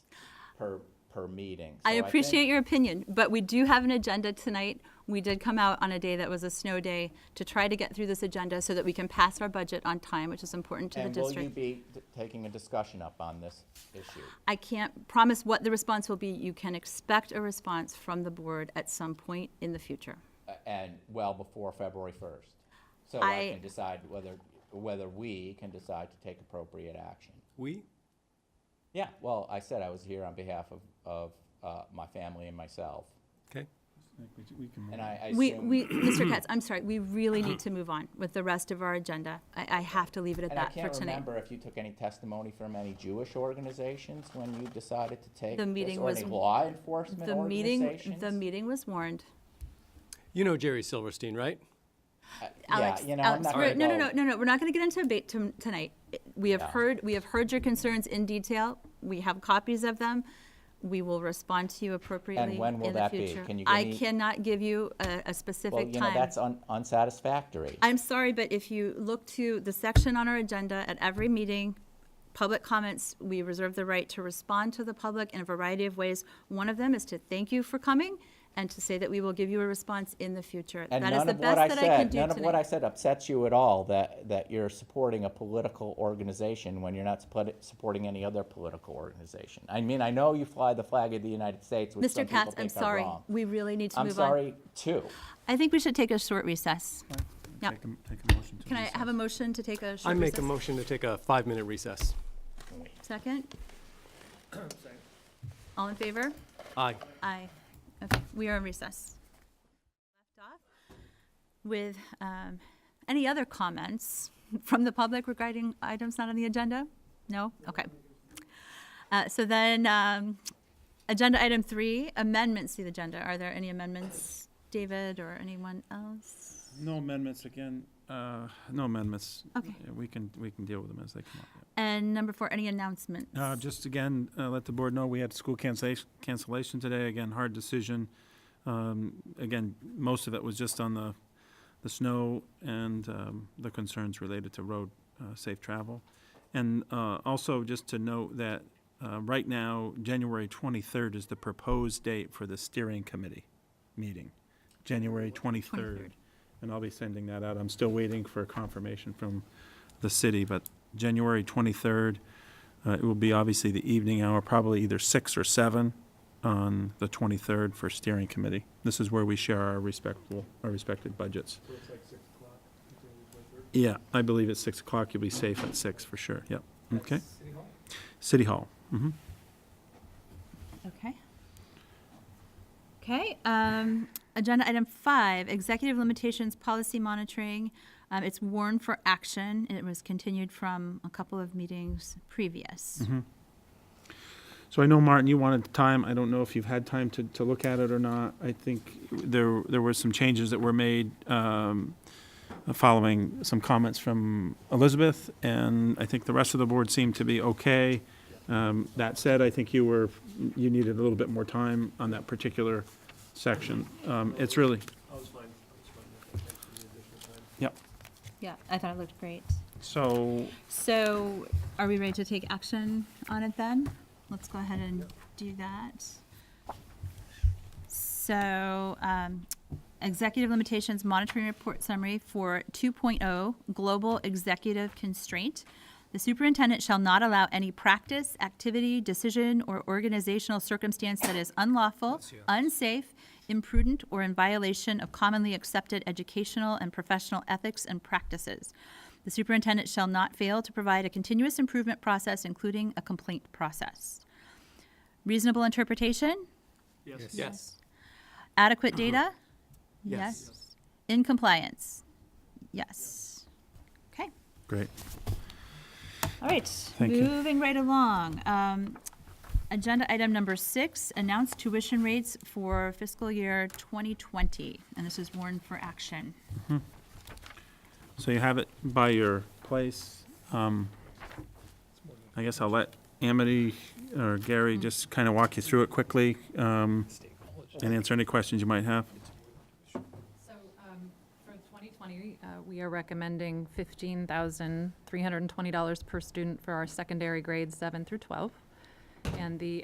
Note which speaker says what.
Speaker 1: per, per meeting.
Speaker 2: I
Speaker 1: So think-
Speaker 2: appreciate your opinion, but we do have an agenda tonight. We did come out on a day that was a snow day to try to get through this agenda so that we can pass our budget on time, which is important to the
Speaker 1: And will you
Speaker 2: district.
Speaker 1: be t- taking a discussion up on this issue?
Speaker 2: I can't promise what the response will be. You can expect a response from the board at some point in the future.
Speaker 1: A- And well before February 1st. So I
Speaker 2: I-
Speaker 1: can decide whether, whether we can decide to take appropriate action.
Speaker 3: We?
Speaker 1: Yeah, well, I said I was here on behalf of, of uh, my family and myself.
Speaker 3: Okay.
Speaker 1: And I I
Speaker 2: We,
Speaker 1: assume-
Speaker 2: we, Mr. Katz, I'm sorry, we really need to move on with the rest of our agenda. I, I have to leave it at
Speaker 1: And I
Speaker 2: that for
Speaker 1: can't
Speaker 2: tonight.
Speaker 1: remember if you took any testimony from any Jewish organizations when you decided to take
Speaker 2: The
Speaker 1: this,
Speaker 2: meeting
Speaker 1: or
Speaker 2: was-
Speaker 1: any law enforcement
Speaker 2: The meeting, the
Speaker 1: organizations?
Speaker 2: meeting was warned.
Speaker 3: You know Jerry Silverstein, right?
Speaker 2: Alex,
Speaker 1: Yeah, you know, I'm
Speaker 2: Alex,
Speaker 1: not
Speaker 2: we're-
Speaker 1: gonna
Speaker 2: no, no, no,
Speaker 1: go.
Speaker 2: no, no, we're not gonna get into a debate to- tonight. We have
Speaker 1: Yeah.
Speaker 2: heard, we have heard your concerns in detail. We have copies of them. We will respond to you appropriately in the future.
Speaker 1: when will that be? Can you give
Speaker 2: I
Speaker 1: me-
Speaker 2: cannot give you a, a
Speaker 1: Well,
Speaker 2: specific
Speaker 1: you know,
Speaker 2: time.
Speaker 1: that's un- unsatisfactory.
Speaker 2: I'm sorry, but if you look to the section on our agenda at every meeting, public comments, we reserve the right to respond to the public in a variety of ways. One of them is to thank you for coming and to say that we will give you a response in the future.
Speaker 1: And
Speaker 2: That is
Speaker 1: none
Speaker 2: the
Speaker 1: of what
Speaker 2: best
Speaker 1: I
Speaker 2: that I can
Speaker 1: said,
Speaker 2: do
Speaker 1: none of what I
Speaker 2: tonight.
Speaker 1: said upsets you at all, that, that you're supporting a political organization when you're not supporti- supporting any other political organization. I mean, I know you fly the flag of the United States, which some
Speaker 2: Mr.
Speaker 1: people
Speaker 2: Katz, I'm
Speaker 1: think are
Speaker 2: sorry.
Speaker 1: wrong.
Speaker 2: We really need to
Speaker 1: I'm
Speaker 2: move on.
Speaker 1: sorry, too.
Speaker 2: I think we should take a short recess. Yeah.
Speaker 4: Take a, take a motion to.
Speaker 2: Can I have a motion to take a
Speaker 3: I
Speaker 2: short
Speaker 3: make a
Speaker 2: recess?
Speaker 3: motion to take a five-minute recess.
Speaker 2: Second? All in favor?
Speaker 3: Aye.
Speaker 2: Aye. Okay, we are in recess. Left off With um, any other comments from the public regarding items not on the agenda? No? Okay. Uh, So then, um, agenda item three, amendments to the agenda. Are there any amendments, David or anyone else?
Speaker 4: No amendments again, uh, no amendments.
Speaker 2: Okay.
Speaker 4: Yeah, We can, we can deal with them as they come up. yeah.
Speaker 2: And number four, any announcements?
Speaker 4: Uh, just again, uh, let the board know, we had school cancellation, cancellation today, again, hard decision. Um, again, most of it was just on the, the snow and, um, the concerns related to road, uh, safe travel. And, uh, also just to note that, uh, right now, January twenty-third is the proposed date for the steering committee meeting, January twenty-third.
Speaker 2: 23rd.
Speaker 4: And I'll be sending that out. I'm still waiting for confirmation from the city, but January twenty-third, uh, It will be obviously the evening hour, probably either six or seven on the 23rd for steering committee. This is where we share our respectable, our respected budgets. Yeah, I believe at 6 o'clock, you'll be safe at 6 for sure, yep, okay. City Hall? hmm
Speaker 2: Okay. Okay, um, agenda item five, executive limitations, policy monitoring. Um, it's warned for action, and it was continued from a couple of meetings previous.
Speaker 4: So I know, Martin, you wanted time. I don't know if you've had time to, to look at it or not. I think there, there were some changes that were made um, following some comments from Elizabeth, and I think the rest of the board seemed to be okay. Um, That said, I think you were, you needed a little bit more time on that particular section. Um, It's really,
Speaker 5: I was fine, I was fine with that, thanks for the additional time.
Speaker 4: yep.
Speaker 2: Yeah, I thought it looked great.
Speaker 4: So
Speaker 2: So are we ready to take action on it then? Let's go ahead and do that. So, um, executive limitations monitoring report summary for 2.0 global executive constraint. The superintendent shall not allow any practice, activity, decision, or organizational circumstance that is unlawful, unsafe, imprudent, or in violation of commonly accepted educational and professional ethics and practices. The superintendent shall not fail to provide a continuous improvement process, including a complaint process. Reasonable interpretation?
Speaker 3: Yes.
Speaker 2: Adequate data?
Speaker 3: Yes.
Speaker 2: In compliance? Yes. Okay,
Speaker 4: Great.
Speaker 2: all right,
Speaker 4: Thank you.
Speaker 2: moving right along. Um, Agenda item number six, announce tuition rates for fiscal year 2020, and this is warned for action.
Speaker 4: So you have it by your place. Um, I guess I'll let Amity or Gary just kind of walk you through it quickly um, and answer any questions you might have.
Speaker 6: So um, for 2020, uh, we are recommending $15,320 per student for our secondary grades 7 through 12. And the